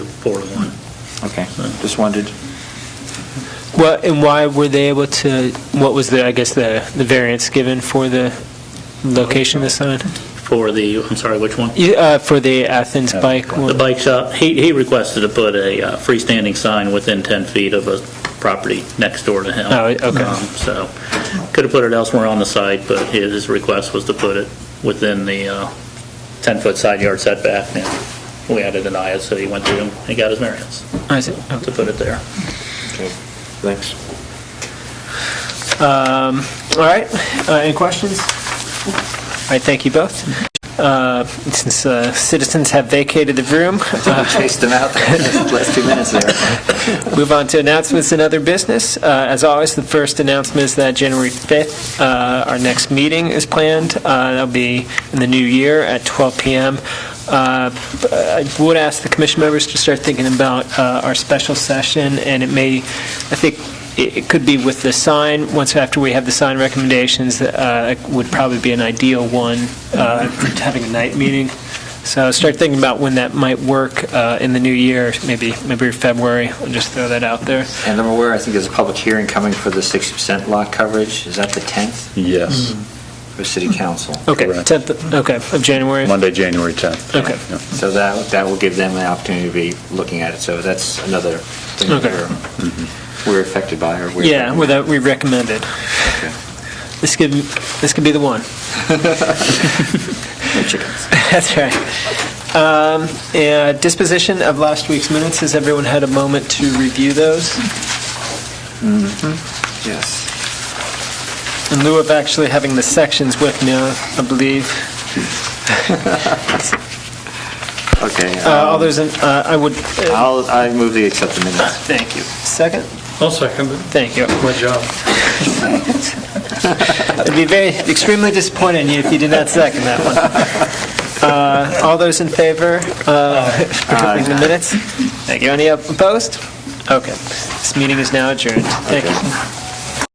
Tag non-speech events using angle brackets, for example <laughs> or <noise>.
four to one. Okay, just wondered. Well, and why were they able to, what was the, I guess, the, the variance given for the location of the sign? For the, I'm sorry, which one? Yeah, uh, For the Athens bike The one? bike shop, he, he requested to put a uh, freestanding sign within 10 feet of a property next door to him. Oh, okay. Um, So, could have put it elsewhere on the site, but his his request was to put it within the uh, 10-foot side yard setback. And We had to deny it, so he went through and he got his variance I see. Okay. to put it there. Thanks. Um, All right, Uh, any questions? All right, thank you both. Uh, Since uh, citizens have vacated the room, uh, <laughs> Chased them <laughs> out the last two minutes there. Move on to announcements and other business. Uh, As always, the first announcement is that January 5th, uh, our next meeting is planned. Uh, That'll be in the new year at 12 PM. Uh, I would ask the commission members to start thinking about uh, our special session, and it may, I think, it it could be with the sign, once after we have the sign recommendations, uh, it would probably be an ideal one uh, for having a night meeting. So start thinking about when that might work uh, in the new year, maybe, maybe February, I'll just throw that out there. And I'm aware, I think there's a public hearing coming for the 60% lot coverage. Is that the 10th Yes, Mm-hmm. for city council? Okay, Correct. 10th, okay, of January? Monday, January 10th. Okay. Yeah. So that, that will give them an opportunity to be looking at it. So that's another thing that Okay. we're, we're affected by or we're. Yeah, well, that we recommended. Okay. This could, this could be the one. That's right. Um, and Disposition of last week's minutes, has everyone had a moment to review those? Yes. In lieu of actually having the sections with me, I believe. Okay. Uh, All those, in- uh, I would, uh, I'll, I move the accept the minutes. thank you. Second? I'll second it. Thank you. My <laughs> job. I'd be very, extremely disappointed in you if you did not second that one. Uh, All those in favor of approving the minutes? Thank you. Any opposed? Okay. This meeting is now adjourned. Thank you.